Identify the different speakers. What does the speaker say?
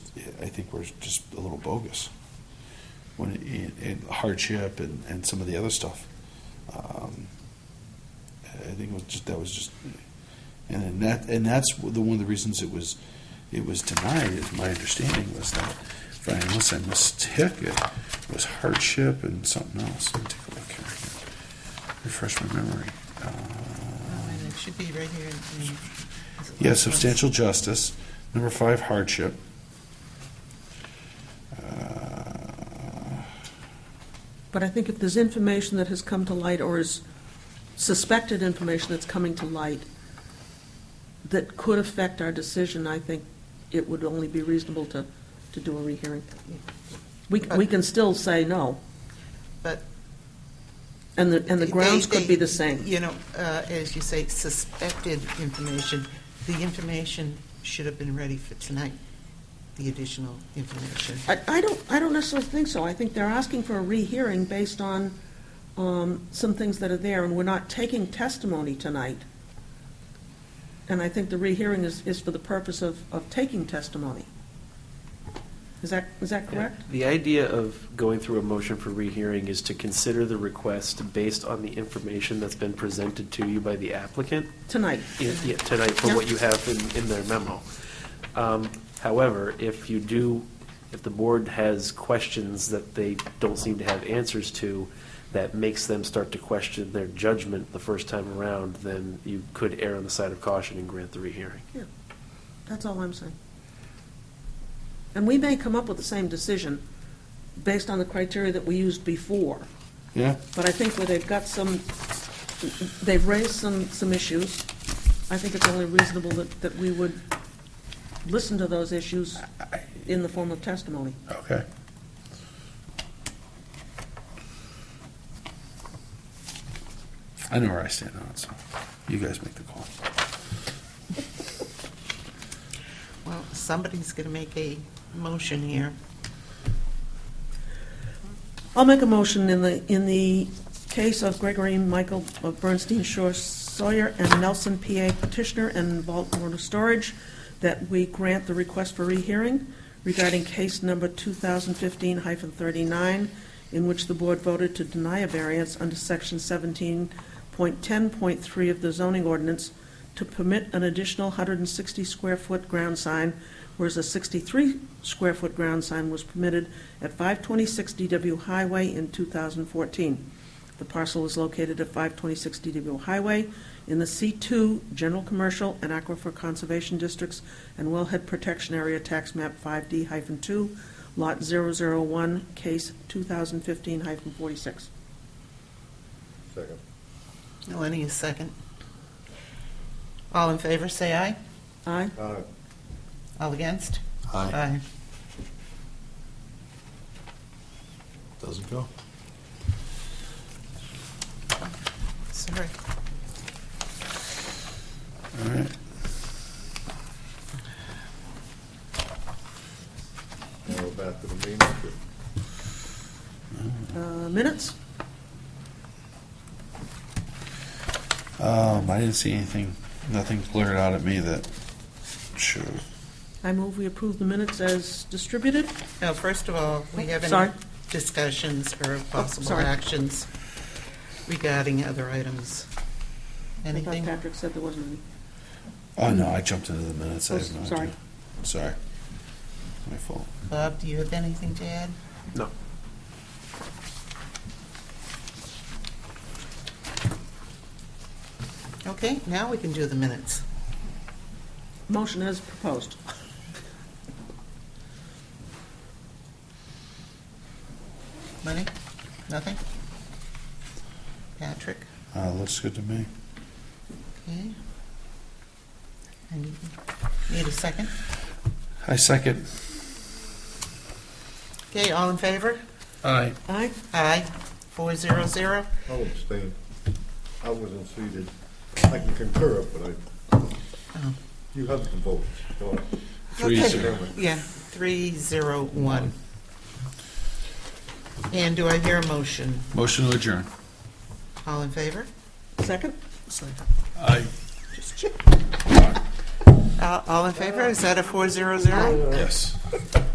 Speaker 1: I think we're just a little bogus when it, and hardship and, and some of the other stuff. Um, I think it was just that was just, and then that and that's the one of the reasons it was it was denied. Is my understanding was that, if I- unless I mistook it, was hardship and something else. Let me take a look here. Refresh my memory. Uh,
Speaker 2: And it should be right here. in- in-
Speaker 1: yeah, substantial justice. Number five, hardship. Uh,
Speaker 3: But I think if there's information that has come to light or is suspected information that's coming to light that could affect our decision, I think it would only be reasonable to, to do a rehearing. We, we can still say no.
Speaker 2: But-
Speaker 3: And the, and the grounds
Speaker 2: They-
Speaker 3: could be the
Speaker 2: they-
Speaker 3: same.
Speaker 2: You know, uh, as you say, suspected information, the information should have been ready for tonight, the additional information.
Speaker 3: I, I don't, I don't necessarily think so. I think they're asking for a rehearing based on, um, some things that are there, and we're not taking testimony tonight. And I think the rehearing is, is for the purpose of, of taking testimony. Is that, is that correct?
Speaker 4: The idea of going through a motion for rehearing is to consider the request based on the information that's been presented to you by the applicant
Speaker 3: Tonight.
Speaker 4: in- yeah, tonight for what you have in, in their memo. Um, However, if you do, if the board has questions that they don't seem to have answers to, that makes them start to question their judgment the first time around, then you could err on the side of caution and grant the rehearing.
Speaker 3: Yeah, that's all I'm saying. And we may come up with the same decision based on the criteria that we used before,
Speaker 1: Yeah,
Speaker 3: but I think where they've got some, they've raised some, some issues, I think it's only reasonable that, that we would listen to those issues in the form of testimony.
Speaker 1: okay. I know where I stand on it, so you guys make the call.
Speaker 2: Well, somebody's going to make a motion here.
Speaker 3: I'll make a motion in the, in the case of Gregory Michael of Bernstein Shore Sawyer and Nelson PA petitioner and Vault Water Storage, that we grant the request for rehearing regarding case number 2015-39, in which the board voted to deny a variance under section 17.10.3 of the zoning ordinance to permit an additional 160-square-foot ground sign, whereas a 63-square-foot ground sign was permitted at 526 DW Highway in 2014. The parcel is located at 526 DW Highway in the C2 General Commercial and Aquifer Conservation Districts and Wellhead Protection Area Tax Map 5D-2, Lot 001, Case 2015-46.
Speaker 5: Second.
Speaker 2: Lenny, a second. All in favor, say aye.
Speaker 3: Aye?
Speaker 5: Aye.
Speaker 2: All against?
Speaker 1: Aye.
Speaker 2: Aye.
Speaker 1: Doesn't go.
Speaker 2: Sorry.
Speaker 1: All right.
Speaker 5: Now we're back to the main issue.
Speaker 3: Uh, Minutes?
Speaker 1: Um, I didn't see anything, nothing glared out at me that showed.
Speaker 3: I move we approve the minutes as distributed.
Speaker 2: Now, first of all, we have
Speaker 3: Oh, Sorry. Oh,
Speaker 2: any discussions or possible
Speaker 3: sorry.
Speaker 2: actions regarding other items?
Speaker 3: I
Speaker 2: Anything?
Speaker 3: thought Patrick said there wasn't any.
Speaker 1: Oh, no, I jumped into the minutes. I have no
Speaker 3: Oh, sorry.
Speaker 1: idea. Sorry. My fault.
Speaker 2: Bob, do you have anything to add?
Speaker 4: No.
Speaker 2: Okay, now we can do the minutes.
Speaker 3: Motion as proposed.
Speaker 2: Lenny? Nothing? Patrick?
Speaker 1: Uh, looks good to me.
Speaker 2: Okay. And you Need a second?
Speaker 1: I second.
Speaker 2: Okay, all in favor?
Speaker 1: Aye.
Speaker 3: Aye?
Speaker 2: Aye, four zero zero.
Speaker 5: I'll abstain. I wasn't seated. I can concur, but I,
Speaker 2: Oh.
Speaker 5: you have the vote. so
Speaker 1: Three
Speaker 2: Okay.
Speaker 1: zero.
Speaker 2: Yeah, three zero one. And do I hear a motion?
Speaker 1: Motion to adjourn.
Speaker 2: All in favor?
Speaker 3: Second?
Speaker 1: Aye.
Speaker 2: Uh, All in favor? Is that a four zero zero?
Speaker 1: Yes.